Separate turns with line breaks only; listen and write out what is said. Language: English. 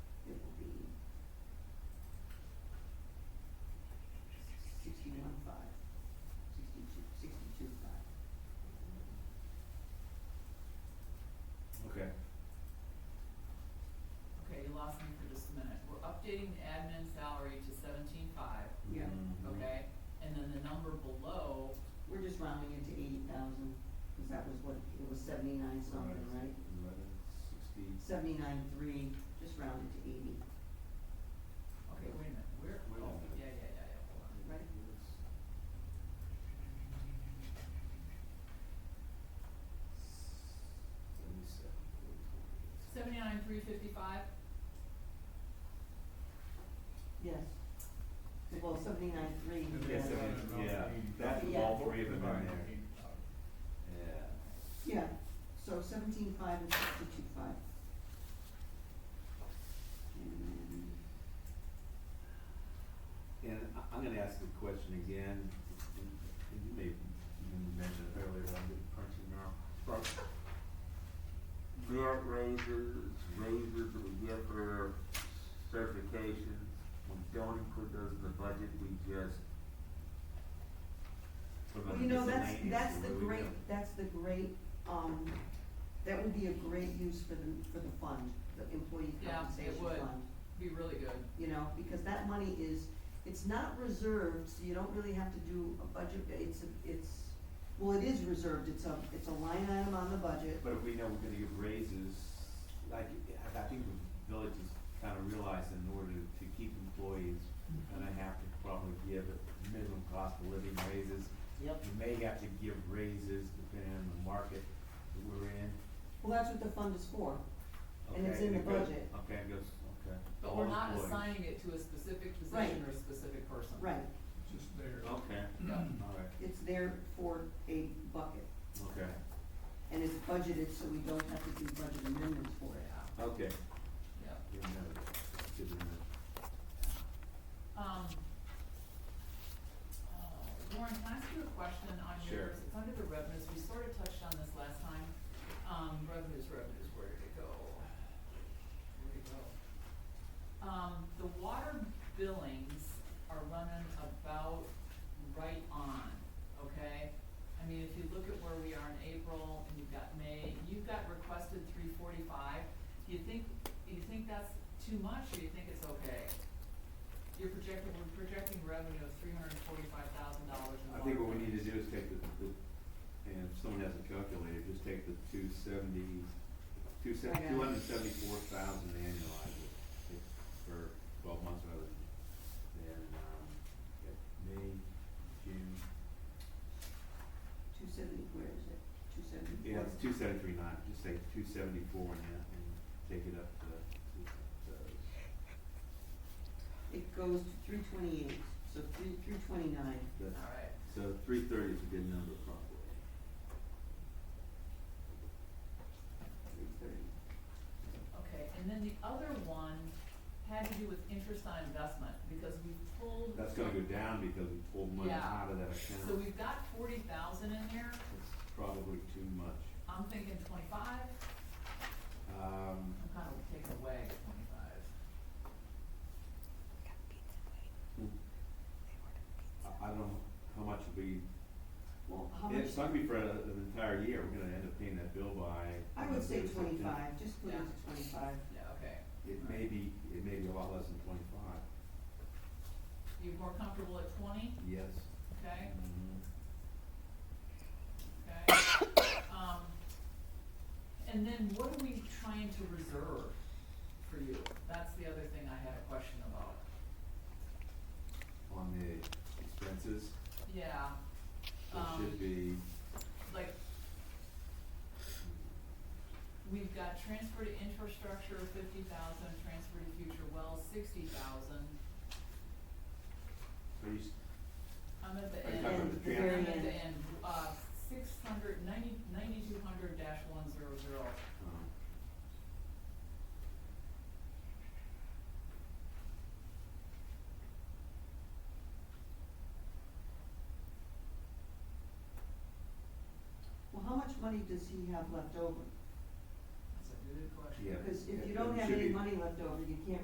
allocating the admin salary to seventeen-five,
Yeah,
Mhm.
okay? And then the number below,
we're just rounding it to eighty thousand, cause that was what, it was seventy-nine something, right?
Eleven sixty.
Seventy-nine three, just rounded to eighty,
okay, wait a minute, where,
Wait a
oh,
minute.
yeah, yeah, yeah, yeah, hold on.
right?
Seventy-seven, four twenty-eight.
Seventy-nine, three fifty-five,
Yes. Well, seventy-nine three.
Yes, it is, yeah, that's
Yeah.
all three of them in
Right.
there, yeah.
Yeah, so seventeen five and sixty-two five.
And- And I- I'm gonna ask the question again, and and you may even mention it earlier, but I'm getting punchy now. But Grant raises, raises, we get their certification, we don't include those in the budget, we just. put them
You know, that's,
miscellaneous,
that's the
where we
great,
go.
that's the great, um, that would be a great use for the, for the fund, the employee
Yeah, it
compensation fund.
would. be really good.
you know, because that money is, it's not reserved, so you don't really have to do a budget, it's, a- it's, well, it is reserved, it's a, it's a line item on the budget.
But if we know we're gonna give raises, like, I- I think the village is kind of realizing in order to keep employees, we're gonna have to probably give a minimum cost of living raises.
Yep.
You may have to give raises depending on the market that we're in.
Well, that's what the fund is for, And it's
Okay,
in the
it goes-
budget.
Okay, it goes, okay.
But
All
we're not
employees.
assigning it to a specific
Right.
position or a specific person.
right,
Just there.
Okay,
Yeah.
all right,
it's there for a bucket,
okay,
and it's budgeted, so we don't have to do budget amendments for it.
Yeah,
okay.
yeah.
Good to know. Good to know.
Um, uh, Lauren, can I ask you a question on
Sure.
yours? It's under the revenues, we sort of touched on this last time. Um, revenues, revenues, where did it go? Where did it go? Um, the water billings are running about right on, okay? I mean, if you look at where we are in April and you've got May, you've got requested three forty-five. Do you think, do you think that's too much or you think it's okay? You're projecting, we're projecting revenue of three hundred and forty-five thousand dollars in
I
water.
think what we need to do is take the, the, and if someone hasn't calculated, just take the two seventy, two se-
Okay.
two hundred and seventy-four thousand annualized it, it, for twelve months rather than, than, um, yeah, May, June,
Two seventy, where is it? Two seventy-four?
yeah, it's two seventy-three nine, just say two seventy-four and, that, and take it up to, to, to,
It goes to three twenty-eight, so three, three twenty-nine.
that's,
All right,
so three thirty is a good number probably.
Three thirty.
okay, and then the other one had to do with interest on investment, because we pulled.
That's gonna go down because we pulled money
Yeah.
out of that account.
So we've got forty thousand in there,
It's probably too much.
I'm thinking twenty-five,
Um,
I'm kind of taking away twenty-five.
I, I don't know how much will be,
Well, how much?
it's not gonna be for a- an entire year, we're gonna end up paying that bill by.
I would say
September.
twenty-five, just put it
Yeah.
to twenty-five.
Yeah, okay,
It may be, it may be a lot less than twenty-five,
you're more comfortable at twenty,
yes.
okay,
Mhm.
okay? Um, and then what are we trying to reserve for you? That's the other thing I had a question about.
On the expenses,
Yeah,
it
Um,
should be,
like, We've got transfer to infrastructure fifty thousand, transfer to future wells sixty thousand.
are you, s-
I'm at the
Are you
end,
talking
I'm
about
at
the
the
transfer?
Very end.
end, uh, six hundred, ninety, ninety-two hundred dash one zero zero.
um,
Well, how much money does he have left over?
That's a good question.
yeah.
Because if
it-
you
it
don't have
should
any
be-
money left over, you can't